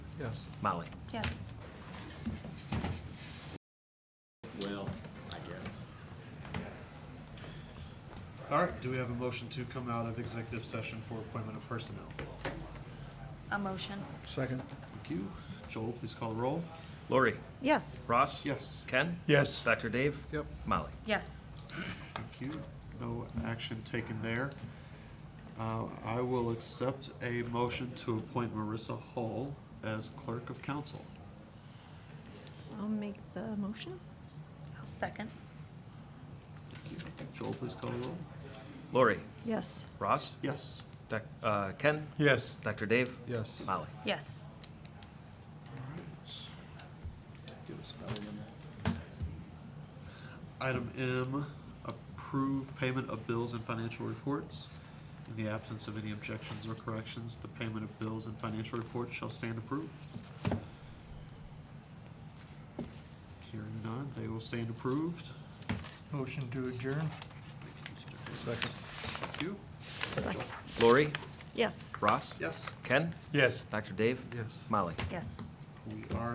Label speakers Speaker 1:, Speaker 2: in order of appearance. Speaker 1: Yes.
Speaker 2: Molly?
Speaker 3: Yes.
Speaker 4: Well, I guess.
Speaker 1: All right, do we have a motion to come out of executive session for appointment of personnel?
Speaker 3: A motion?
Speaker 5: Second.
Speaker 1: Thank you. Joel, please call the roll.
Speaker 2: Lori?
Speaker 3: Yes.
Speaker 2: Ross?
Speaker 1: Yes.
Speaker 2: Ken?
Speaker 5: Yes.
Speaker 2: Dr. Dave?
Speaker 5: Yep.
Speaker 2: Molly?
Speaker 3: Yes.
Speaker 1: Thank you. No action taken there. Uh, I will accept a motion to appoint Marissa Hall as clerk of council.
Speaker 6: I'll make the motion.
Speaker 3: I'll second.
Speaker 1: Thank you. Joel, please call the roll.
Speaker 2: Lori?
Speaker 6: Yes.
Speaker 2: Ross?
Speaker 1: Yes.
Speaker 2: Doc- uh, Ken?
Speaker 5: Yes.
Speaker 2: Dr. Dave?
Speaker 5: Yes.
Speaker 2: Molly?
Speaker 3: Yes.
Speaker 4: Give us another one there.
Speaker 1: Item M, approve payment of bills and financial reports. In the absence of any objections or corrections, the payment of bills and financial reports shall stand approved. Hearing none, they will stand approved.
Speaker 5: Motion to adjourn? Second.
Speaker 1: Thank you.
Speaker 6: Second.
Speaker 2: Lori?
Speaker 6: Yes.
Speaker 2: Ross?
Speaker 1: Yes.
Speaker 2: Ken?
Speaker 5: Yes.
Speaker 2: Dr. Dave?
Speaker 5: Yes.
Speaker 2: Molly?
Speaker 3: Yes.
Speaker 1: We are